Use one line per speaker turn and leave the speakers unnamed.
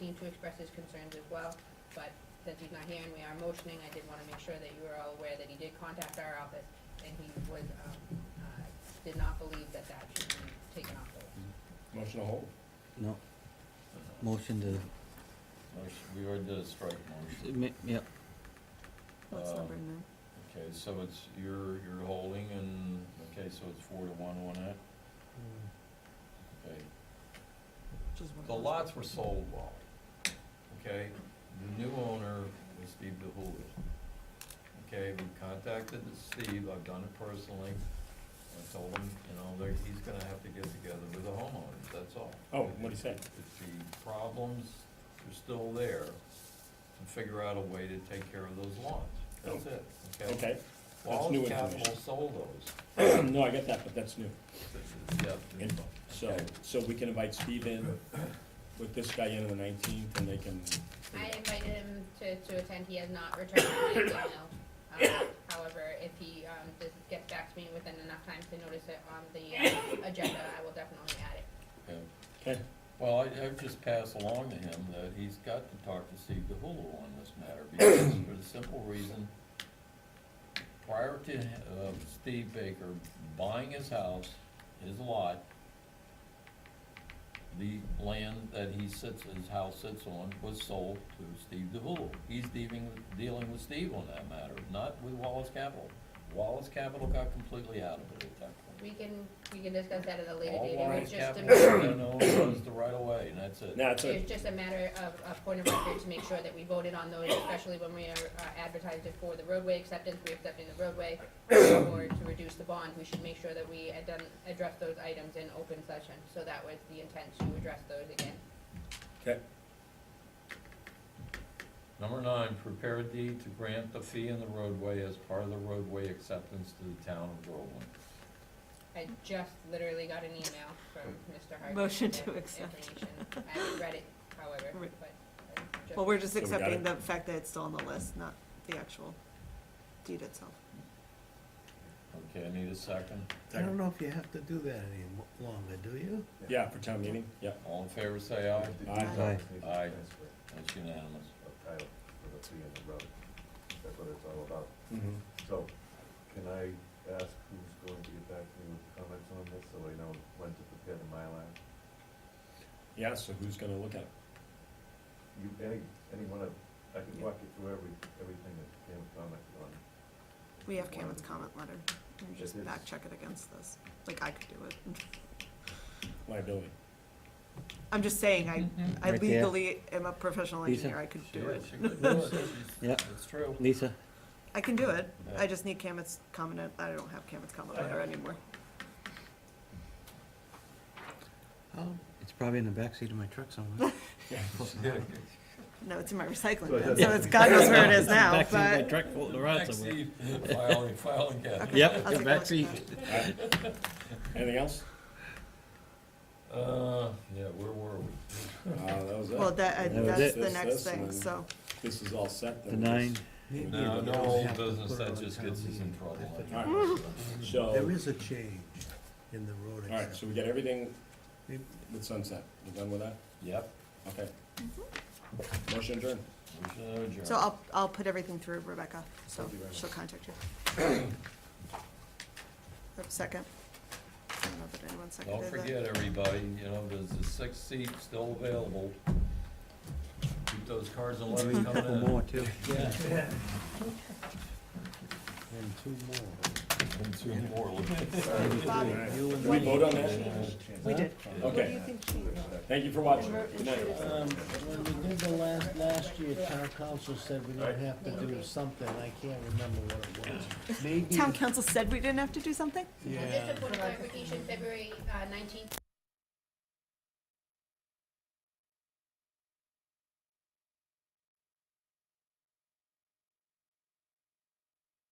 to express his concerns as well, but since he's not here and we are motioning, I did wanna make sure that you are all aware that he did contact our office and he was, um, uh, did not believe that that should be taken off the list.
Motion to hold?
No, motion to,
Motion, we already did a strike motion.
ma- yep,
What's
Um,
number nine?
Okay, so it's, you're, you're holding and, okay, so it's four to one on it? Okay,
Which is one of
the
those.
lots were sold well, okay? The new owner was Steve DeHulley. Okay, we contacted Steve, I've done it personally. I told him, you know, that he's gonna have to get together with the homeowners, that's all.
Oh, what'd he say?
If the problems are still there, to figure out a way to take care of those lots, that's it, okay?
Oh. Okay, that's new
Wallace Capital
information.
sold those.
No, I get that, but that's new.
Yeah, new
And
ones.
So, so we can invite Steve in with this guy in on the nineteenth and they can.
I invited him to, to attend, he has not returned my email. Um, However, if he, um, does get back to me within enough time to notice it on the uh, agenda, I will definitely add it.
Yeah.
Okay,
Well, I, I've just passed along to him that he's got to talk to Steve DeHulu on this matter, because for the simple reason, prior to, uh, Steve Baker buying his house, his lot, the land that he sits, his house sits on was sold to Steve DeHulu. He's dealing, dealing with Steve on that matter, not with Wallace Capital. Wallace Capital got completely out of it at that point.
We can, we can discuss that at a later
All
date, it
Wallace
was just a
Capital,
matter,
you know, was the right of way, and that's it.
now it's a,
it's just a matter of, a point of record to make sure that we voted on those, especially when we are uh, advertised it for the roadway acceptance, we're accepting the roadway, or to reduce the bond, we should make sure that we had done, address those items in open session, so that was the intent, to address those again.
okay,
Number nine, prepare a deed to grant the fee in the roadway as part of the roadway acceptance to the town of Groveland.
I just literally got an email from Mr. Hardy.
Motion
with
to accept.
information. I haven't read it, however,
Right.
but. I just-
Well, we're just
So we got
accepting the
it.
fact that it's still on the list, not the actual deed itself.
Okay, I need a second.
I don't know if you have to do that any mo- longer, do you?
yeah, for town meeting, yeah.
All in favor, say aye.
Aye.
aye,
Aye. That's unanimous.
of title for the fee on the road. That's what it's all about.
Mhm.
So, can I ask who's going to get back to me with comments on this, so I know when to prepare the Mylar?
Yeah, so who's gonna look at it?
You, any, any one of, I can walk you through every, everything that Pam commented on.
We have Cameron's comment letter, and just
It is.
back check it against this, like I could do it.
Liability.
I'm just saying, I, I
Right there.
legally am a professional
Lisa?
engineer, I could
She
do it.
is, she could do it.
Yeah.
It's true.
Lisa,
I can do it,
Yeah.
I just need Cameron's comment, I don't have Cameron's comment letter anymore.
Um,
it's probably in the backseat of my truck somewhere. Close enough.
No, it's in my recycling
So
bin,
it
so it's, God knows where it is now,
Backseat of my
but.
truck floating around
Next
somewhere.
deed, file, file again.
Okay,
Yep,
I'll
the
take a look at
backseat.
that.
Anything else?
Uh, yeah, where were we?
Uh, that was
Well,
it.
that, I-
That was
that's
it.
the
That's-
next
that's
thing,
the-
so,
This is all set.
The
then.
nine,
maybe
No,
you
no
don't
old
have to
business,
put it
that
on
just
town
gets us in
meeting.
trouble.
If it-
All right, so, all
There is a change in the road
right, so
acceptance.
we got everything
Maybe-
with sunset. You done with that?
Yep,
Okay.
Mm-hmm.
Motion adjourned.
motion to adjourn.
so I'll, I'll put everything through Rebecca, so
Thank you very
she'll contact you. Uh, Second. I don't know that anyone
Don't
seconded that.
forget, everybody, you know, there's the six seat still available. Keep those cards and
maybe
letters
a couple
coming
more
in.
too.
And two more.
And two more.
Bobby,
You and
Did we
What-
vote on that?
we did.
Okay.
What do you think she?
Thank you for watching. Good night.
Um, when we did the last, last year, town council said we don't have to do something, I can't remember what it was. Maybe,
Town council said we didn't have to do something?
Just
yeah,
a point of clarification, February uh, nineteenth